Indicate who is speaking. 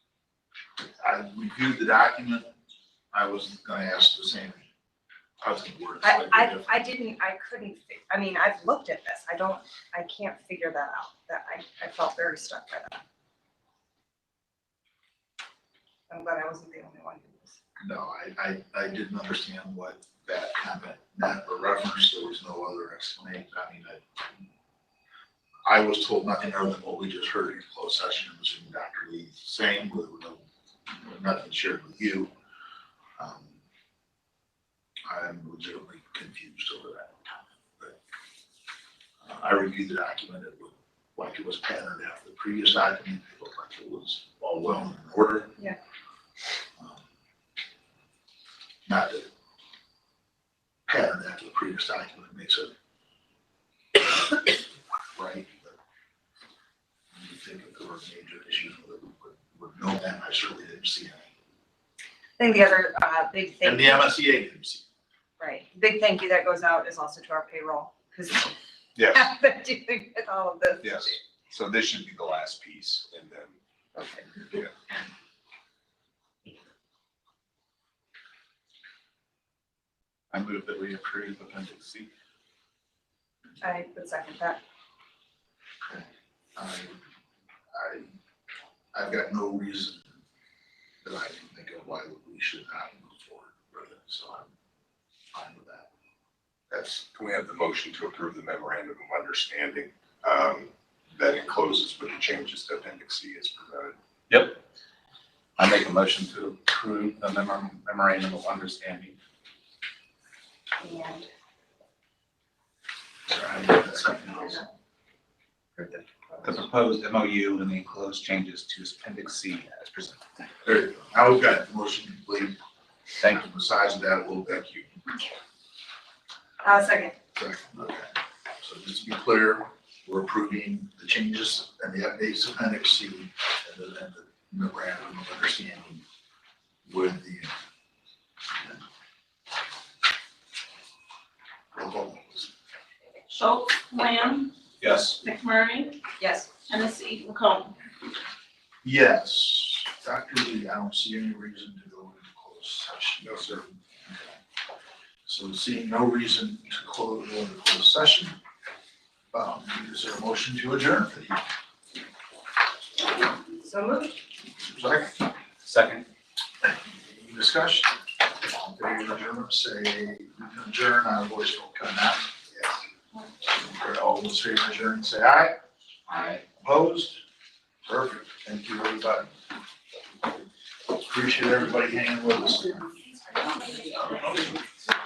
Speaker 1: I reviewed the document, I was gonna ask the same, I was gonna word it
Speaker 2: I,
Speaker 1: slightly
Speaker 2: I,
Speaker 1: different.
Speaker 2: I didn't, I couldn't, fi- I mean, I've looked at this, I don't, I can't figure that out, that I, I felt very stuck by that. I'm glad I wasn't the only one who was.
Speaker 1: No, I, I, I didn't understand what that comment meant or reference, there was no other explanation, I mean, I, I was told nothing other than what we just heard in closed session, it was from Dr. Lee saying, with no, with nothing shared with you. Um, I'm legitimately confused over that comment, but uh, I reviewed the document, it looked like it was patterned after the previous document, it looked like it was all well in order.
Speaker 2: Yeah.
Speaker 1: Um, not the pattern after the previous document makes it right, but you think if there were major issues with, with, with no, and I certainly didn't see any.
Speaker 2: I think the other, uh, big
Speaker 1: And
Speaker 2: thank
Speaker 1: the
Speaker 2: you,
Speaker 1: MSEA didn't see.
Speaker 2: right, big thank you that goes out is also to our payroll, because
Speaker 3: Yes,
Speaker 2: they're dealing with all of this.
Speaker 3: yes. So this should be the last piece and then,
Speaker 2: Okay.
Speaker 4: I move that we approve appendix C.
Speaker 2: I would second that.
Speaker 1: I, I, I've got no reason that I can think of why we should not move forward with it, so I'm fine with that.
Speaker 3: that's, can we have the motion to approve the memorandum of understanding? um, That encloses with the changes to appendix C is presented.
Speaker 4: I make a motion to approve the memor- memorandum of understanding.
Speaker 2: And
Speaker 1: So I think that's something else.
Speaker 4: or The the proposed MOU and the enclosed changes to appendix C as presented.
Speaker 1: There you go. Now we've got the motion complete.
Speaker 4: Thank you.
Speaker 1: Besides that, we'll thank you.
Speaker 2: Uh, second,
Speaker 1: Correct. Okay. So just to be clear, we're approving the changes and the updates of appendix C and the, and the memorandum of understanding with the. Roll call, please.
Speaker 5: Schultz, Lamb,
Speaker 4: Yes.
Speaker 5: McMurray,
Speaker 2: yes.
Speaker 5: Hennessy, McComb.
Speaker 1: Yes, Dr. Lee, I don't see any reason to go into closed session.
Speaker 3: No, sir.
Speaker 1: Okay. So seeing no reason to close, go into closed session, um, is there a motion to adjourn for the evening?
Speaker 2: So moved.
Speaker 1: Second,
Speaker 4: Second.
Speaker 1: any discussion? All in favor of adjournment, say adjourn, I voice will come out. Yes. All those favor adjourn, say aye.
Speaker 4: Aye.
Speaker 1: Opposed? Perfect. Thank you, everybody. Appreciate everybody hanging with us.